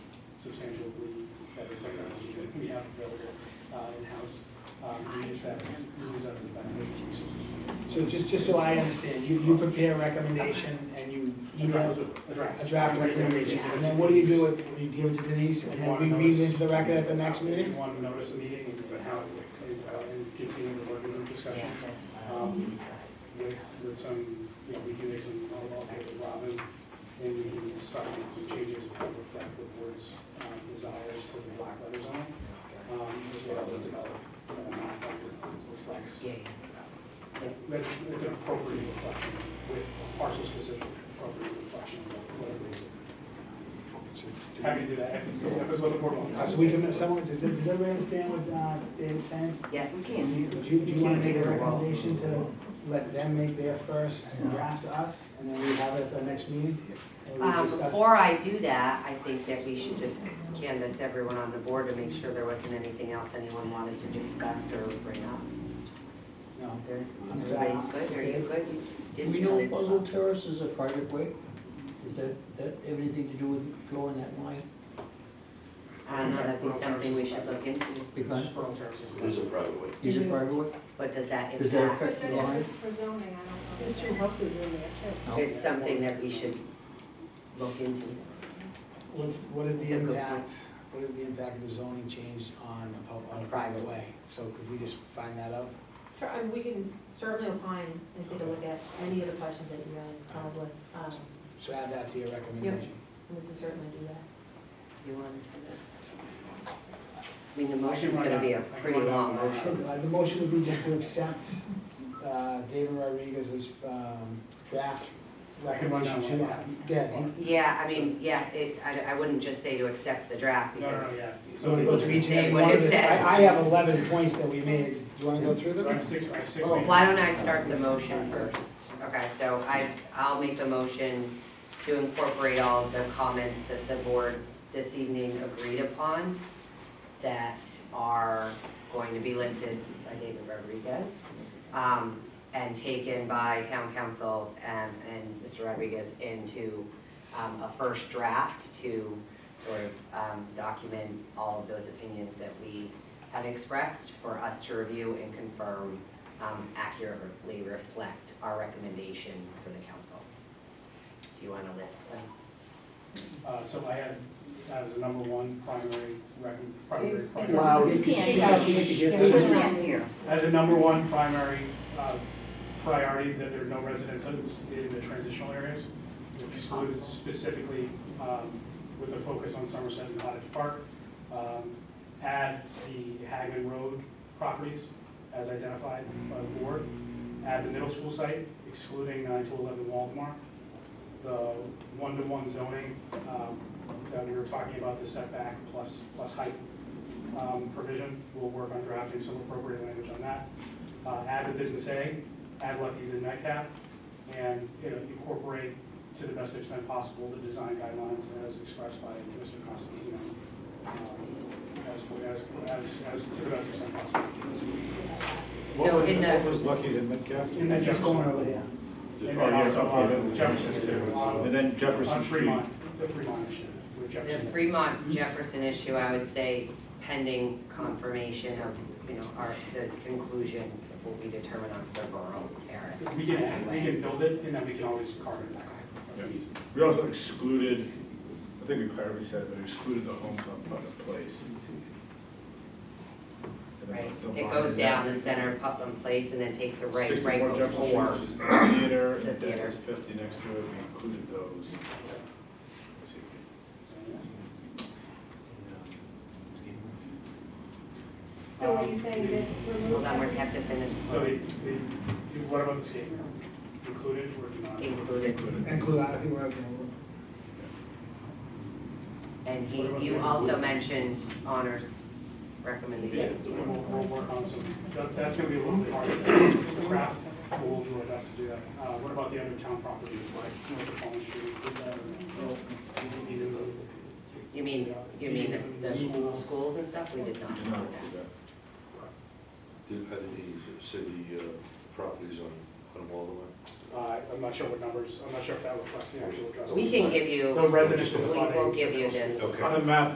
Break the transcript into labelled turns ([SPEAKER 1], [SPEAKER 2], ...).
[SPEAKER 1] substantially better technology that we have available uh, in-house. Um, We use that, as- we use that as a benefit resource.
[SPEAKER 2] So just, just so I understand, you, you prepare a recommendation and you
[SPEAKER 1] A draft,
[SPEAKER 2] email
[SPEAKER 1] a draft.
[SPEAKER 2] a draft recommendation, and then what do you do with, you give it to Denise, and then we read it into the record at the next
[SPEAKER 1] If
[SPEAKER 2] meeting?
[SPEAKER 1] you want to notice a meeting, but how, and, uh, and continue the working group discussion um, with, with some, you know, we can make some, I'll, I'll get with Robin, and we can start making some changes that reflect the board's um, desires to the black letter zone, um, as well as develop, uh, that this reflects, that it's an appropriate reflection with parcel specific appropriate reflection of whatever it is. Happy to do that if it's, if it's what the board
[SPEAKER 2] Uh,
[SPEAKER 1] wants.
[SPEAKER 2] So we can, someone, does, does everybody understand what, uh, David's saying?
[SPEAKER 3] Yes, we
[SPEAKER 2] Do
[SPEAKER 3] can.
[SPEAKER 2] you, do you, do you wanna make a recommendation to let them make their first draft to us, and then we have it at the next meeting? And we
[SPEAKER 3] Um,
[SPEAKER 2] discuss,
[SPEAKER 3] Before I do that, I think that we should just canvass everyone on the board to make sure there wasn't anything else anyone wanted to discuss or bring up.
[SPEAKER 2] no,
[SPEAKER 3] Is there-
[SPEAKER 2] I'm sorry.
[SPEAKER 3] Everybody's good, are you good? You
[SPEAKER 4] Do
[SPEAKER 3] didn't
[SPEAKER 4] we know
[SPEAKER 3] really-
[SPEAKER 4] Buzzell Terrace is a private way? Is that, that have anything to do with drawing that line?
[SPEAKER 3] I don't know, that'd be something we should look into,
[SPEAKER 4] Because
[SPEAKER 1] Pearl Terrace is-
[SPEAKER 5] It is a private way.
[SPEAKER 4] is it private way?
[SPEAKER 3] but does that
[SPEAKER 4] Does that
[SPEAKER 3] impact?
[SPEAKER 4] affect the line?
[SPEAKER 6] There's two houses in there too.
[SPEAKER 4] No?
[SPEAKER 3] It's something that we should look into.
[SPEAKER 2] What's, what is the
[SPEAKER 3] That's a good
[SPEAKER 2] impact, what is the impact of the zoning change on a pub, on a private way? So could we just find that out?
[SPEAKER 7] Sure, and we can certainly opine and take a look at any of the questions that you guys come up with, um,
[SPEAKER 2] So add that to your recommendation.
[SPEAKER 7] and we can certainly do that.
[SPEAKER 3] You want to? I mean, the motion's
[SPEAKER 1] run
[SPEAKER 3] gonna be a
[SPEAKER 1] out- I can
[SPEAKER 3] pretty
[SPEAKER 1] run out
[SPEAKER 3] long
[SPEAKER 1] my-
[SPEAKER 3] motion.
[SPEAKER 2] Sure, uh, the motion would be just to accept, uh, David Rodriguez's, um, draft
[SPEAKER 1] I can run
[SPEAKER 2] recommendation
[SPEAKER 1] down
[SPEAKER 2] to,
[SPEAKER 1] one.
[SPEAKER 2] yeah,
[SPEAKER 3] Yeah, I mean, yeah, it, I, I wouldn't just say to accept the draft
[SPEAKER 1] No, no, no,
[SPEAKER 3] because.
[SPEAKER 1] yeah.
[SPEAKER 2] So we go through each and
[SPEAKER 3] Say
[SPEAKER 2] every
[SPEAKER 3] what
[SPEAKER 2] one
[SPEAKER 3] it
[SPEAKER 2] of the-
[SPEAKER 3] says.
[SPEAKER 2] I, I have eleven points that we made, do you wanna go through
[SPEAKER 1] So I have
[SPEAKER 2] them?
[SPEAKER 1] six, I have six.
[SPEAKER 2] Oh,
[SPEAKER 1] names.
[SPEAKER 3] Why don't I start the motion first? Okay, so I, I'll make the motion to incorporate all of the comments that the board this evening agreed upon that are going to be listed by David Rodriguez, um, and taken by town council and, and Mr. Rodriguez into, um, a first draft to sort of, um, document all of those opinions that we have expressed for us to review and confirm um, accurately reflect our recommendation for the council. Do you want to list them?
[SPEAKER 1] Uh, so I had, as a number one primary rec, primary,
[SPEAKER 6] Please.
[SPEAKER 1] primary-
[SPEAKER 5] Wow.
[SPEAKER 2] You can
[SPEAKER 6] can't.
[SPEAKER 2] speak up, you can hear
[SPEAKER 1] There's
[SPEAKER 2] this.
[SPEAKER 1] no-
[SPEAKER 3] here.
[SPEAKER 1] as a number one primary, uh, priority that there are no residents in the transitional areas. Excluded specifically, um, with a focus on Somerset and Cottage Park. Um, add the Hagman Road properties as identified by the board. Add the middle school site excluding nine to eleven Waldemar. The one-to-one zoning, um, that we were talking about, the setback plus, plus height um, provision. We'll work on drafting some appropriate language on that. Uh, Add the business A, add Lucky's and Metcalf, and you know, incorporate to the best extent possible the design guidelines as expressed by Mr. Constantino. um, As, as, as, as to the best extent possible.
[SPEAKER 3] So in the,
[SPEAKER 8] was Lucky's and Metcalf?
[SPEAKER 1] And then
[SPEAKER 2] It's just going
[SPEAKER 1] Jefferson,
[SPEAKER 2] over there.
[SPEAKER 1] and
[SPEAKER 8] Oh,
[SPEAKER 1] then also uh, Jefferson's here,
[SPEAKER 8] And
[SPEAKER 1] on
[SPEAKER 8] then
[SPEAKER 1] on
[SPEAKER 8] Jefferson Street.
[SPEAKER 1] Fremont, the Fremont issue with
[SPEAKER 3] the
[SPEAKER 1] Jefferson.
[SPEAKER 3] Fremont Jefferson issue, I would say pending confirmation of, you know, our, the conclusion of what we determine on the rural terrace.
[SPEAKER 1] We can, we can build it and then we can always carve it back.
[SPEAKER 8] Yeah. We also excluded, I think we clearly said, but excluded the homes on Putnam Place. And then
[SPEAKER 3] Right,
[SPEAKER 8] the
[SPEAKER 3] it
[SPEAKER 8] line
[SPEAKER 3] goes
[SPEAKER 8] is
[SPEAKER 3] down
[SPEAKER 8] at
[SPEAKER 3] the center, Putnam Place, and then takes a right,
[SPEAKER 8] 64
[SPEAKER 3] right
[SPEAKER 8] Jefferson Street,
[SPEAKER 3] before.
[SPEAKER 8] which is the theater,
[SPEAKER 3] the
[SPEAKER 8] and
[SPEAKER 3] theater.
[SPEAKER 8] Dental's fifty next to it, we included those.
[SPEAKER 6] So are you saying that remove
[SPEAKER 3] Hold on, we're
[SPEAKER 6] that?
[SPEAKER 3] kept to finish.
[SPEAKER 1] So the, the, what about the skating rink? Included or not?
[SPEAKER 3] Included.
[SPEAKER 2] Include, I think we're okay.
[SPEAKER 3] And he, you also mentioned honors recommendation.
[SPEAKER 1] Yeah, we'll, we'll work on some, that, that's gonna be a little bit harder to craft, but we'll do our best to do that. Uh, what about the other town properties, like North of Collins Street, Did that, or, you know,
[SPEAKER 3] You mean, you mean the, the schools and stuff, we did not
[SPEAKER 8] We did not
[SPEAKER 3] do
[SPEAKER 8] include that.
[SPEAKER 5] Do you have any city uh, properties on, on Waldo?
[SPEAKER 1] uh, I'm not sure what numbers, I'm not sure if that reflects the actual address.
[SPEAKER 3] that. We can give you,
[SPEAKER 1] The residents.
[SPEAKER 3] we will give you this.
[SPEAKER 5] Okay.
[SPEAKER 8] On the map,